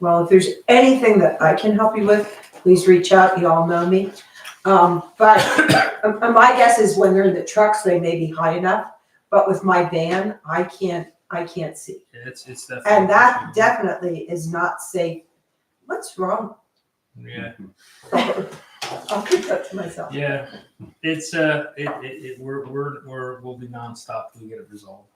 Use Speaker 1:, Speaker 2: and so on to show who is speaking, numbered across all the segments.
Speaker 1: Well, if there's anything that I can help you with, please reach out. You all know me. Um, but uh, uh, my guess is when they're in the trucks, they may be high enough. But with my van, I can't, I can't see.
Speaker 2: Yeah, It's, it's definitely.
Speaker 1: And that
Speaker 2: an
Speaker 1: definitely is not safe. What's wrong?
Speaker 2: issue. Yeah,
Speaker 1: I'll keep that to myself.
Speaker 2: yeah. It's, uh, it, it, it, we're, we're, we're, we'll be nonstop till we get it resolved.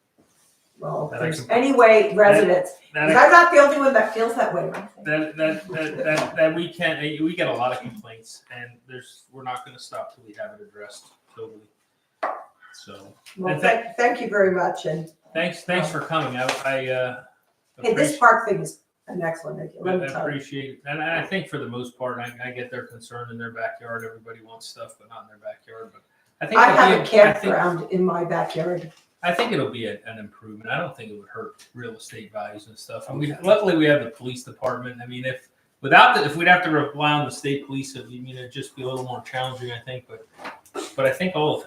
Speaker 1: Well, if
Speaker 2: That I
Speaker 1: there's
Speaker 2: can-
Speaker 1: any way residents, 'cause
Speaker 2: That,
Speaker 1: I'm not the only one that feels that way, right?
Speaker 2: that, that, that, that, that we can't, eh, we get a lot of complaints and there's, we're not gonna stop till we have it addressed totally. So,
Speaker 1: Well,
Speaker 2: And tha-
Speaker 1: thank, thank you very much. And
Speaker 2: thanks, thanks for coming. I, I, uh,
Speaker 1: hey, this
Speaker 2: appreciate,
Speaker 1: park thing is an excellent idea.
Speaker 2: I
Speaker 1: let me tell you.
Speaker 2: appreciate, and I think for the most part, I, I get their concern in their backyard. Everybody wants stuff, but not in their backyard, but I think.
Speaker 1: I
Speaker 2: it'll
Speaker 1: have a
Speaker 2: be I think-
Speaker 1: campground in my backyard.
Speaker 2: I think it'll be a, an improvement. I don't think it would hurt real estate values and stuff. And we luckily we have the police department. I mean, if without the, if we'd have to rely on the state police, it, you mean it'd just be a little more challenging, I think. But but I think all of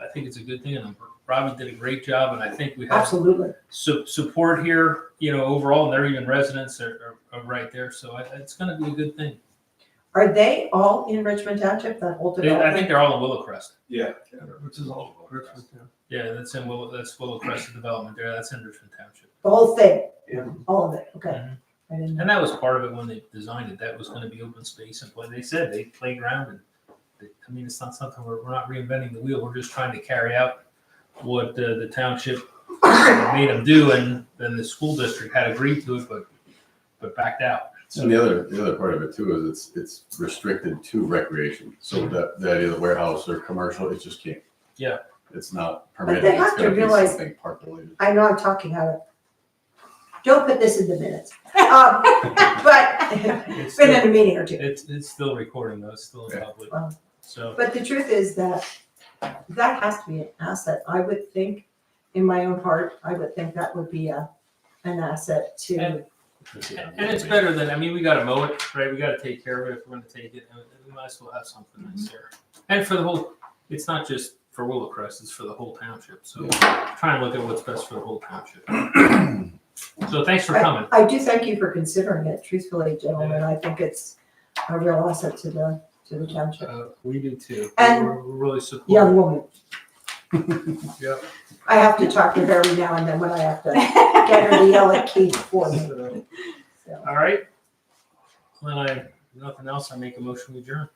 Speaker 2: I, I think it's a good thing, and Robbie did a great job. And I think we have
Speaker 1: Absolutely.
Speaker 2: su- support here, you know, overall, and they're even residents are, are, are right there. So I, it's going to be a good thing.
Speaker 1: Are they all in Richmond Township, that whole
Speaker 2: They, I think
Speaker 1: development?
Speaker 2: they're all in Willowcrest.
Speaker 3: Yeah.
Speaker 4: Which is all.
Speaker 2: Yeah, that's in Willow. That's Willowcrest development there. That's in Richmond Township.
Speaker 1: The whole thing?
Speaker 3: Yeah.
Speaker 1: All of it, okay.
Speaker 2: Mhm.
Speaker 1: I didn't know.
Speaker 2: And that was part of it when they designed it. That was going to be open space and play. They said they playground and they, I mean, it's not something we're, we're not reinventing the wheel. We're just trying to carry out what uh, the township made them do, and then the school district had agreed to it, but but backed out.
Speaker 4: And the other, the other part of it too is it's, it's restricted to recreation. So that, that is warehouse or commercial, it just can't.
Speaker 2: Yeah.
Speaker 4: It's not
Speaker 1: they
Speaker 4: permitted.
Speaker 1: have
Speaker 4: It's
Speaker 1: to
Speaker 4: gonna be
Speaker 1: realize-
Speaker 4: something park related.
Speaker 1: I know I'm talking out of, don't put this in the minutes. Um, But
Speaker 2: It's
Speaker 1: been
Speaker 2: still,
Speaker 1: in a meeting or two.
Speaker 2: it's, it's still recording though. It's still in
Speaker 4: Yeah.
Speaker 2: public.
Speaker 1: Wow.
Speaker 2: So
Speaker 1: But the truth is that that has to be an asset. I would think, in my own heart, I would think that would be a, an asset to,
Speaker 2: And- and it's better than I mean, we got to mow it, right? We got to take care of it if we're going to take it. and We might as well have something nice there. And for the whole, it's not just for Willowcrest; it's for the whole township. So try and look at what's best for the whole township. so thanks for coming.
Speaker 1: I do thank you for considering it, truthfully, gentlemen. I think it's a real asset to the, to the township.
Speaker 2: Uh, we do too.
Speaker 1: And-
Speaker 2: we're, we're really supportive.
Speaker 1: Young woman,
Speaker 2: Yep.
Speaker 1: I have to talk to her every now and then when I have to get her to yell at Keith for me.
Speaker 2: So,
Speaker 1: So,
Speaker 2: all right. When I nothing else, I make a motion to adjourn.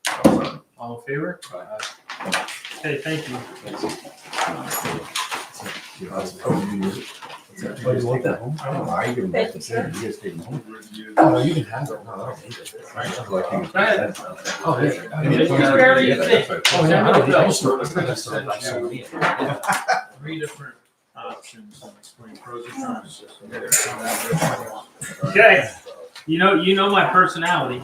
Speaker 2: All in favor? Aye. Okay, thank you.
Speaker 5: Oh, you want that home? I don't know, I give them back to Sarah, you guys take them home. Oh, no, you can have it. No, I don't need it.
Speaker 4: uh,
Speaker 5: Oh, yeah. I mean,
Speaker 2: Just
Speaker 5: it's-
Speaker 2: barely a thing.
Speaker 5: Oh, yeah, I don't- I just-
Speaker 2: Three different options on explaining pros and cons. Okay, you know, you know my personality.